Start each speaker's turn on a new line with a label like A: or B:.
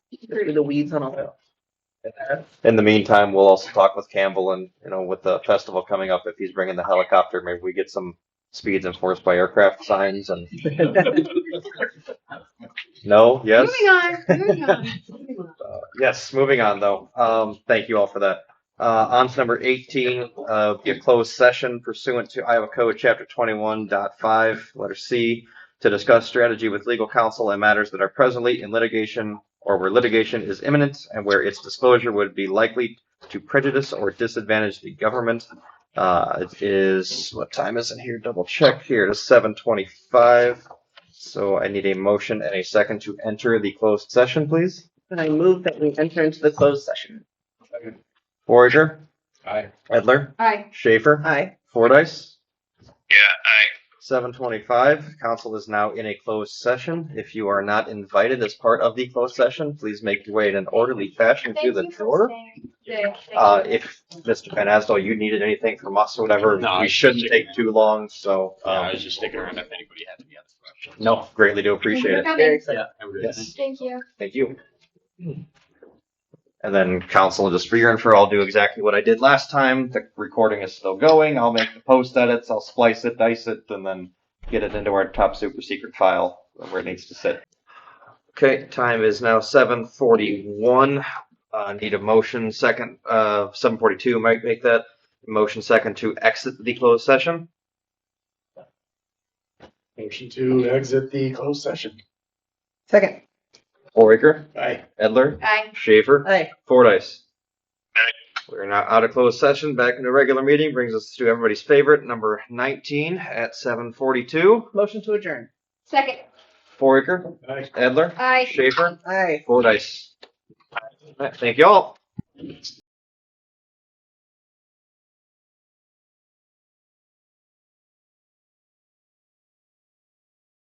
A: through the weeds on all that.
B: Um, In the meantime, we'll also talk with Campbell and, you know, with the festival coming up, if he's bringing the helicopter, maybe we get some speeds enforced by aircraft signs and no, yes.
C: Moving on, moving on. moving on.
B: Uh, yes, moving on though. Um, thank you all for that. Uh, on to number eighteen, uh, be a closed session pursuant to Iowa Code Chapter twenty-one dot five, letter C, to discuss strategy with legal counsel and matters that are presently in litigation or where litigation is imminent and where its disclosure would be likely to prejudice or disadvantage the government. Uh, it is, what time is it here? Double check here. It is seven twenty-five. So I need a motion and a second to enter the closed session, please.
A: And I move that we enter into the closed session.
B: Forager,
D: Aye.
B: Edler,
C: Aye.
B: Schaefer,
A: Aye.
B: Fordice.
D: Yeah, aye.
B: Seven twenty-five, council is now in a closed session. If you are not invited as part of the closed session, please make your way in an orderly fashion to
C: Thank
B: the
C: you for
B: door.
C: staying. Yeah, thank
B: Uh,
C: you.
B: if Mr. Van Asdell, you needed anything from us or whatever,
D: No, I
B: we
D: was
B: shouldn't
D: just
B: take
D: checking
B: too long, so,
D: Uh, I
B: um,
D: was just sticking around if anybody had any other questions.
B: no, greatly do appreciate it.
C: Thank you for
A: Very
C: coming.
A: excited.
D: I would-
B: Yes.
C: Thank you.
B: Thank you. And then council, just for your info, I'll do exactly what I did last time. The recording is still going. I'll make the post edits, I'll splice it, dice it, and then get it into our top super secret file where it needs to sit. Okay, time is now seven forty-one. Uh, need a motion second, uh, seven forty-two might make that. Motion second to exit the closed session.
E: Motion to exit the closed session.
A: Second.
B: Foraker,
E: Aye.
B: Edler,
C: Aye.
B: Schaefer.
A: Aye.
B: Fordice.
D: Aye.
B: We're now out of closed session, back into regular meeting, brings us to everybody's favorite, number nineteen at seven forty-two.
A: Motion to adjourn.
C: Second.
B: Foraker,
E: Aye.
B: Edler,
C: Aye.
B: Schaefer,
A: Aye.
B: Fordice. All right, Thank you all.